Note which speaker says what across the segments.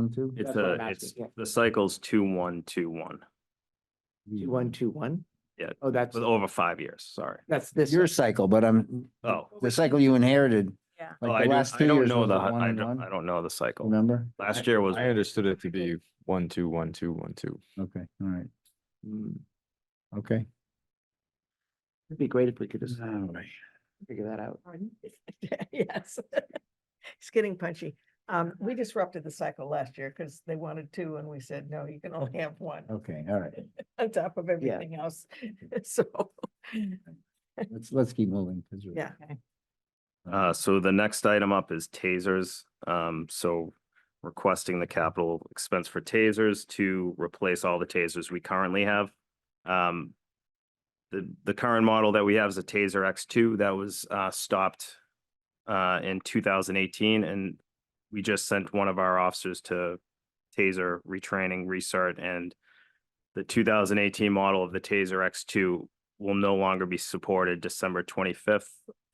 Speaker 1: One, two?
Speaker 2: It's
Speaker 3: That's what
Speaker 2: a,
Speaker 3: I'm
Speaker 2: it's,
Speaker 3: asking, yeah.
Speaker 2: the cycle's two, one, two, one,
Speaker 3: Two, one, two, one?
Speaker 2: Yeah,
Speaker 3: Oh, that's,
Speaker 2: with over five years, sorry.
Speaker 3: that's this.
Speaker 1: Your cycle, but I'm,
Speaker 2: Oh.
Speaker 1: the cycle you inherited.
Speaker 4: Yeah.
Speaker 2: Oh,
Speaker 1: Like
Speaker 2: I
Speaker 1: the
Speaker 2: don't,
Speaker 1: last
Speaker 2: I
Speaker 1: two
Speaker 2: don't
Speaker 1: years
Speaker 2: know
Speaker 1: was
Speaker 2: the,
Speaker 1: it
Speaker 2: hu-
Speaker 1: one
Speaker 2: I
Speaker 1: and
Speaker 2: don't, I
Speaker 1: one,
Speaker 2: don't know the cycle.
Speaker 1: remember?
Speaker 2: Last year was,
Speaker 5: I understood it to be one, two, one, two, one, two.
Speaker 1: Okay, all right. Okay.
Speaker 3: It'd be great if we could just
Speaker 1: right.
Speaker 3: figure that out.
Speaker 4: Pardon? Yes. It's getting punchy. Um, we disrupted the cycle last year because they wanted two and we said, no, you can only have one
Speaker 1: Okay, all right.
Speaker 4: on top of everything else. So,
Speaker 1: Let's, let's keep moving. 'cause we're-
Speaker 4: yeah.
Speaker 2: uh, so the next item up is tasers. Um, so requesting the capital expense for tasers to replace all the tasers we currently have. Um, the, the current model that we have is a Taser X two that was, uh, stopped, uh, in two thousand eighteen and we just sent one of our officers to Taser retraining, recert, and the two thousand eighteen model of the Taser X two will no longer be supported December twenty-fifth,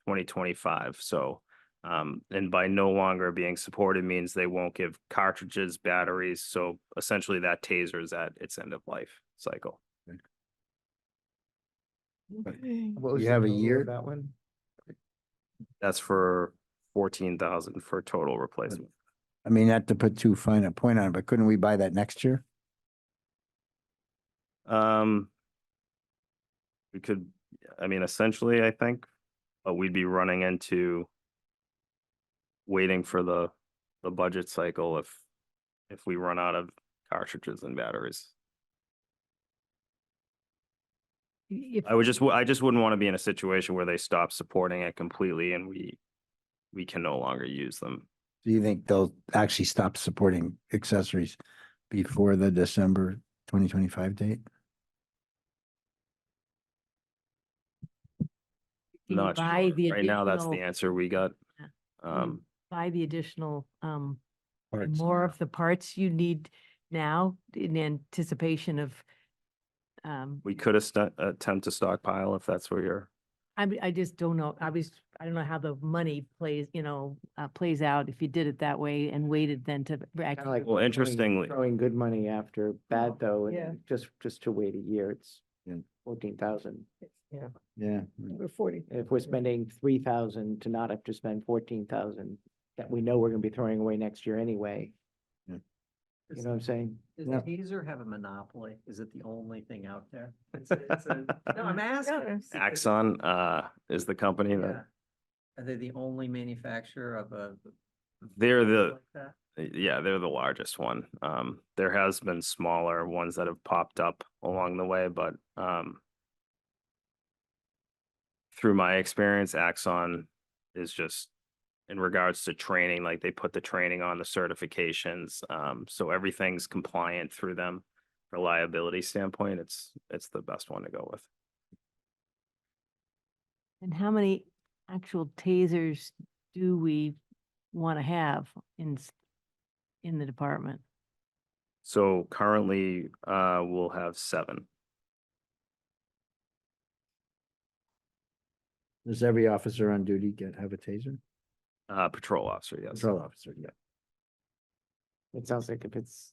Speaker 2: twenty twenty-five. So, um, and by no longer being supported means they won't give cartridges, batteries. So essentially that Taser is at its end of life cycle.
Speaker 3: What was
Speaker 1: You
Speaker 3: the
Speaker 1: have a
Speaker 3: total of
Speaker 1: year?
Speaker 3: That one?
Speaker 2: That's for fourteen thousand for total replacement.
Speaker 1: I mean, not to put too fine a point on it, but couldn't we buy that next year?
Speaker 2: Um, we could, I mean, essentially, I think, but we'd be running into waiting for the, the budget cycle if, if we run out of cartridges and batteries. I would just, I just wouldn't want to be in a situation where they stop supporting it completely and we, we can no longer use them.
Speaker 1: Do you think they'll actually stop supporting accessories before the December twenty twenty-five date?
Speaker 6: Can you
Speaker 2: Not
Speaker 6: buy the
Speaker 2: sure. Right now, that's the
Speaker 6: additional-
Speaker 2: answer we got.
Speaker 6: Yeah.
Speaker 2: Um,
Speaker 6: Buy the additional, um,
Speaker 1: Parts.
Speaker 6: more of the parts you need now in anticipation of, um,
Speaker 2: we could ast- attempt to stockpile if that's where you're,
Speaker 6: I, mean, I just don't know, I was, I don't know how the money plays, you know, uh, plays out if you did it that way and waited then to. react.
Speaker 3: Kinda like
Speaker 2: well,
Speaker 3: throwing-
Speaker 2: interestingly-
Speaker 3: Throwing good money after bad though,
Speaker 4: Oh, Yeah.
Speaker 3: and just, just to wait a year, it's
Speaker 1: Yeah.
Speaker 3: fourteen thousand.
Speaker 4: Yeah,
Speaker 1: Yeah.
Speaker 4: we're forty.
Speaker 3: If we're spending three thousand to not have to spend fourteen thousand that we know we're gonna be throwing away next year anyway.
Speaker 1: Yeah.
Speaker 3: You know what I'm saying?
Speaker 7: Does
Speaker 1: Yeah.
Speaker 7: Taser have a monopoly? Is it the only thing out there? It's a- it's a- No, I'm asking.
Speaker 6: it's-
Speaker 2: Axon, uh, is the company
Speaker 7: Yeah.
Speaker 2: that,
Speaker 7: Are they the only manufacturer of a?
Speaker 2: They're the-
Speaker 7: like that?
Speaker 2: Eh, yeah, they're the largest one. Um, there has been smaller ones that have popped up along the way, but, um, through my experience, Axon is just in regards to training, like they put the training on the certifications. Um, so everything's compliant through them. Reliability standpoint, it's, it's the best one to go with.
Speaker 6: And how many actual tasers do we want to have in, s- in the department?
Speaker 2: So currently, uh, we'll have seven.
Speaker 1: Does every officer on duty get, have a taser?
Speaker 2: Uh, patrol officer, yes.
Speaker 1: Patrol officer, yeah.
Speaker 3: It sounds like if it's,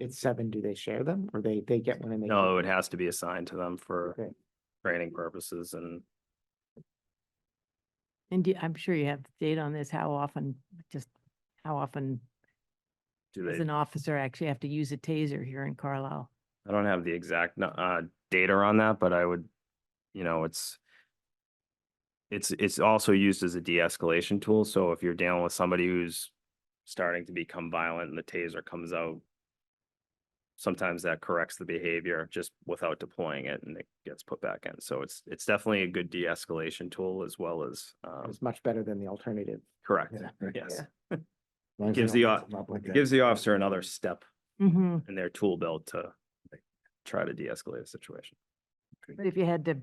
Speaker 3: it's seven, do they share them or they, they get one and they?
Speaker 2: No,
Speaker 3: keep
Speaker 2: it has to be assigned to them for
Speaker 3: Okay.
Speaker 2: training purposes and
Speaker 6: And do- I'm sure you have data on this, how often, just how often
Speaker 2: do
Speaker 6: does
Speaker 2: they,
Speaker 6: an officer actually have to use a taser here in Carlisle?
Speaker 2: I don't have the exact, nu- uh, data on that, but I would, you know, it's it's, it's also used as a de-escalation tool. So if you're dealing with somebody who's starting to become violent and the taser comes out, sometimes that corrects the behavior just without deploying it and it gets put back in. So it's, it's definitely a good de-escalation tool as well as,
Speaker 3: them.
Speaker 2: um,
Speaker 3: It's much better than the alternative.
Speaker 2: correct.
Speaker 1: Yeah, right.
Speaker 2: Yes.
Speaker 3: Yeah.
Speaker 1: Long as
Speaker 2: Gives
Speaker 1: they don't mess
Speaker 2: the au-
Speaker 1: them up like
Speaker 2: It
Speaker 1: that.
Speaker 2: gives the officer another step
Speaker 6: Mm-hmm.
Speaker 2: in their tool belt to try to de-escalate a situation.
Speaker 6: But if you had to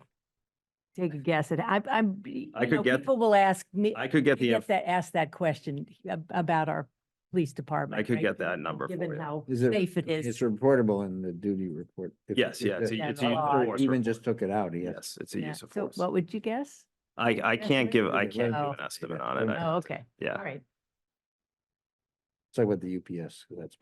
Speaker 6: take a guess at, I, I'm.
Speaker 2: I
Speaker 6: you
Speaker 2: could
Speaker 6: know,
Speaker 2: get-
Speaker 6: People will ask me.
Speaker 2: I could get
Speaker 6: you
Speaker 2: the, inf-
Speaker 6: that, ask that question ab- about our police department.
Speaker 2: I could
Speaker 6: right?
Speaker 2: get that number for
Speaker 6: Given
Speaker 2: you.
Speaker 6: how
Speaker 1: Is it-
Speaker 6: safe it
Speaker 1: It's
Speaker 6: is.
Speaker 1: reportable in the duty report. If-
Speaker 2: Yes,
Speaker 1: if
Speaker 2: yeah, it's
Speaker 1: the-
Speaker 2: a-
Speaker 6: Yeah,
Speaker 2: it's
Speaker 6: the
Speaker 2: a use
Speaker 6: law.
Speaker 2: of force
Speaker 1: Even
Speaker 2: report.
Speaker 1: just took it out, yes.
Speaker 2: Yes, it's a
Speaker 6: Yeah.
Speaker 2: use of
Speaker 6: So
Speaker 2: force.
Speaker 6: What would you guess?
Speaker 2: I, I can't
Speaker 6: estimate?
Speaker 2: give,
Speaker 1: Yeah,
Speaker 2: I can't give
Speaker 6: Oh.
Speaker 2: an estimate on it. I-
Speaker 6: Oh, okay.
Speaker 2: Yeah.
Speaker 6: All right.
Speaker 1: It's like with the UPS, that's